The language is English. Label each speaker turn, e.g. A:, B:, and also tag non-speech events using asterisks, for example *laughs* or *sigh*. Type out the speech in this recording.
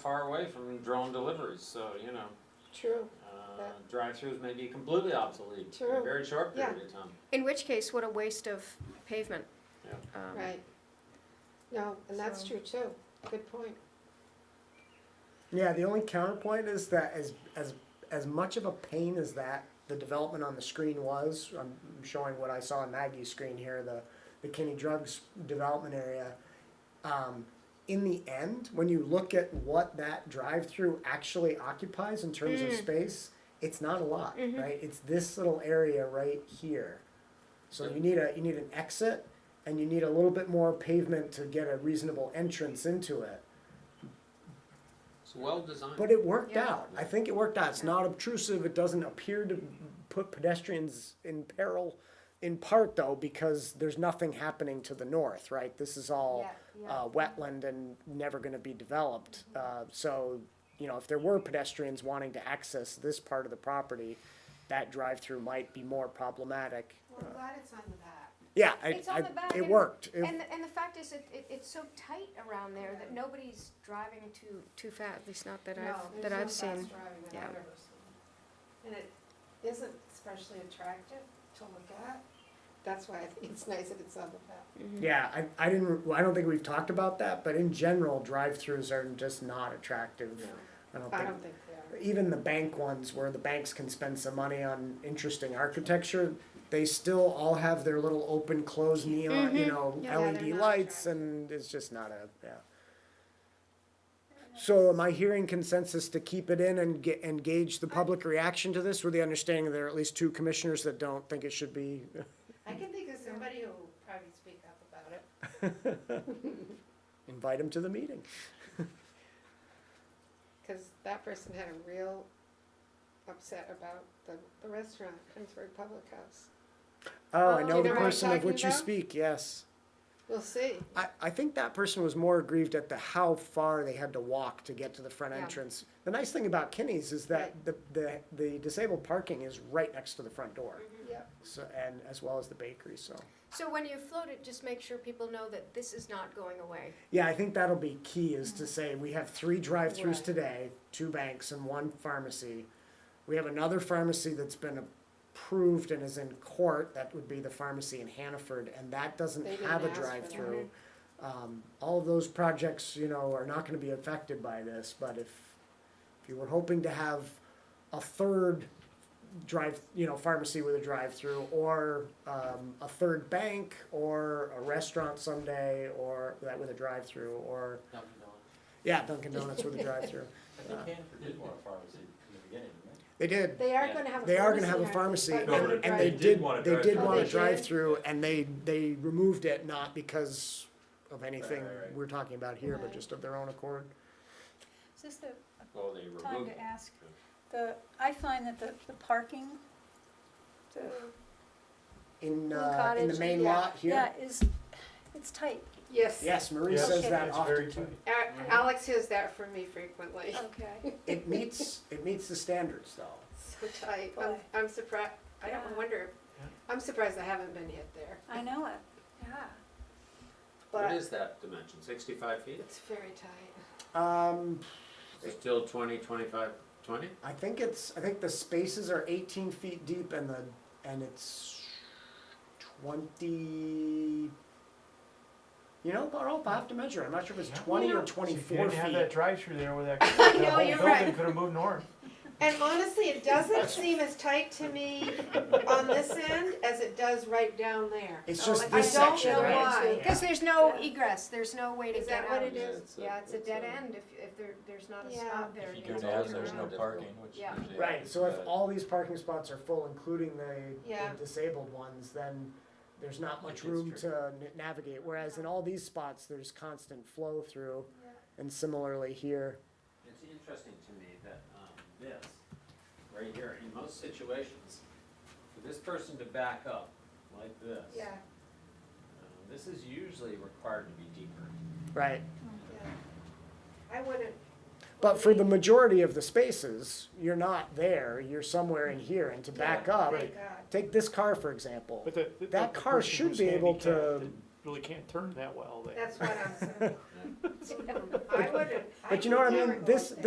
A: far away from drone deliveries, so, you know,
B: True.
A: uh,
B: That-
A: drive-throughs may be completely obsolete in a
B: True.
A: very short
B: Yeah.
A: period of time.
C: In which case, what a waste of pavement.
A: Yeah.
C: Um,
B: Right. No, and that's
C: So-
B: true too. Good point.
D: Yeah, the only counterpoint is that as as as much of a pain as that the development on the screen was, I'm I'm showing what I saw on Maggie's screen here, the the Kenny Drugs development area. Um, in the end, when you look at what that drive-through actually occupies in terms of
C: Mm.
D: space, it's not a lot,
C: Mhm.
D: right? It's this little area right here. So
A: Yeah.
D: you need a you need an exit, and you need a little bit more pavement to get a reasonable entrance into it.
A: It's well-designed.
D: But it worked
C: Yeah.
D: out. I think it worked out. It's not obtrusive. It doesn't appear to put pedestrians in peril, in part though, because there's nothing happening to the north, right? This is all uh, wetland and never going to be developed.
C: Mm-hmm.
D: Uh, so, you know, if there were pedestrians wanting to access this part of the property, that drive-through might be more problematic.
B: Well, I'm glad it's on the back.
D: Yeah, I,
C: It's on
D: I-
C: the back
D: it
C: and-
D: worked. It-
C: And, the- and the fact is, that it, it's so tight around there that nobody's driving too, too fast, at least not that I've, that I've
B: No, there's
C: seen.
B: no fast driving that
C: yeah.
B: I've ever seen. And it isn't especially attractive to look at. That's why I think it's nice that it's on the back.
D: Yeah, I, I didn't, well, I don't think we've talked about that, but in general, drive-throughs are just not attractive. I don't
B: I
D: think
B: don't think they are.
D: even the bank ones where the banks can spend some money on interesting architecture, they still all have their little open close neon, you know,
B: Mm-hmm. Yeah, they're
D: LED
B: not
D: lights,
B: attractive.
D: and it's just not a yeah. So am I hearing consensus to keep it in and get engage the public reaction to this with the understanding there are at least two commissioners that don't think it should be? *laughs*
B: I can think of somebody who will probably speak up about it.
D: Invite them to the meeting.
B: Because that person had a real upset about the, the restaurant, Kingsbury Public House.
D: Oh,
C: Oh,
D: I
C: do
D: know
C: you
D: the
C: know what I'm
D: person of
B: talking
D: which you
B: about?
D: speak, yes.
B: We'll see.
D: I, I think that person was more aggrieved at the how far they had to walk to get to the front
C: Yeah.
D: entrance. The nice thing about Kinney's is that
B: Right.
D: the, the, the disabled parking is right next to the front door,
B: Yep.
D: so, and as well as the bakery, so.
C: So when you float it, just make sure people know that this is not going away.
D: Yeah, I think that'll be key is to say, we have three drive-throughs
B: Right.
D: today, two banks and one pharmacy. We have another pharmacy that's been approved and is in court, that would be the pharmacy in Hannaford, and that doesn't
B: They didn't
D: have a
B: ask for that.
D: drive-through. Um, all of those projects, you know, are not gonna be affected by this, but if, if you were hoping to have a third drive, you know, pharmacy with a drive-through, or um, a third bank, or a restaurant someday, or that with a drive-through, or yeah, Dunkin' Donuts with a
B: *laughs*
D: drive-through. Uh,
E: But they can, they did want a pharmacy in the beginning, didn't
D: They did.
B: They are
E: Yeah.
B: gonna have a pharmacy.
D: They are gonna have a
B: aren't they?
D: pharmacy,
B: But
D: and,
B: not a
E: and
D: they
B: drive-through.
D: did.
E: want a
D: They did
E: drive-thru.
D: want
B: Oh,
D: a
B: they did?
D: drive-through, and they they removed it not because of anything
E: right, right.
D: we're talking about here, but
B: Right.
D: just of their own accord.
F: Is this the
A: Well, they
F: time
A: removed,
F: to ask? The, I find that the, the parking, the,
D: In
F: Little
D: uh, in the
F: cottage,
D: main
B: yeah.
D: lot here.
F: yeah, is, it's tight.
B: Yes.
D: Yes, Marie
E: Yeah.
D: says
F: Okay.
D: that
E: It's
D: often
E: very
D: too.
E: tight.
B: A-
D: Mm-hmm.
B: Alex hears that from me frequently. *laughs*
F: Okay.
D: It meets it meets the standards though.
B: So tight. I'm,
F: Boy.
B: I'm surprised, I don't
F: Yeah.
B: wonder,
A: Yeah.
B: I'm surprised I haven't been hit there.
F: I know it, yeah.
A: what
B: But
A: is that dimension, sixty-five feet?
B: it's very tight.
D: Um,
A: Is it still twenty, twenty-five, twenty?
D: I think it's I think the spaces are 18 feet deep and the and it's 20. You know, but I'll have to measure. I'm not sure if it's 20 or
G: See,
D: 24
G: If you didn't have that
D: feet.
G: drive-through there
B: *laughs*
G: where that,
B: I
G: that
B: know,
G: whole
B: you're
G: building
B: right.
G: could have moved north.
B: And honestly, it doesn't seem as tight to
D: *laughs*
B: me on this end as it does right down there.
D: It's
C: Oh,
D: just
C: I
D: this
C: don't
D: section,
C: know
D: right?
B: why.
C: Because there's no
F: Yeah.
C: egress, there's no way to
B: Is
C: get
B: that what
C: out.
B: it
A: Yeah,
B: is?
A: it's a-
C: Yeah, it's a
A: it's
C: dead
A: a-
C: end if, if there, there's not a
B: Yeah.
C: stop
E: they?
C: there.
E: If
C: to
E: you go
C: get
E: down,
C: to
E: there's no
C: *laughs* around.
E: parking, which
C: Yeah.
E: usually.
D: Right. So if
E: but-
D: all these parking spots are full, including the, the
B: Yeah.
D: disabled ones, then there's not much
E: It's
D: room
E: true.
D: to n- navigate. Whereas in all these spots, there's constant flow through,
B: Yeah.
D: and similarly here.
A: It's interesting to me that um, this, right here, in most situations, for this person to back up like this.
B: Yeah,
A: uh, This is usually required to be deeper.
D: Right.
B: yeah. I wouldn't.
D: But for the majority of the spaces, you're not there, you're somewhere in here, and to back up,
B: Thank God.
D: take this car for example.
G: But the, the-
D: That
G: the
D: car
G: person
D: should
G: who's
D: be able
G: handicapped
D: to
G: and really can't turn that well there.
D: *laughs*
B: That's what I'm saying.
A: Yeah.
B: I wouldn't. I
D: But you know what I
B: would
D: mean?
B: never go
D: This-
B: there.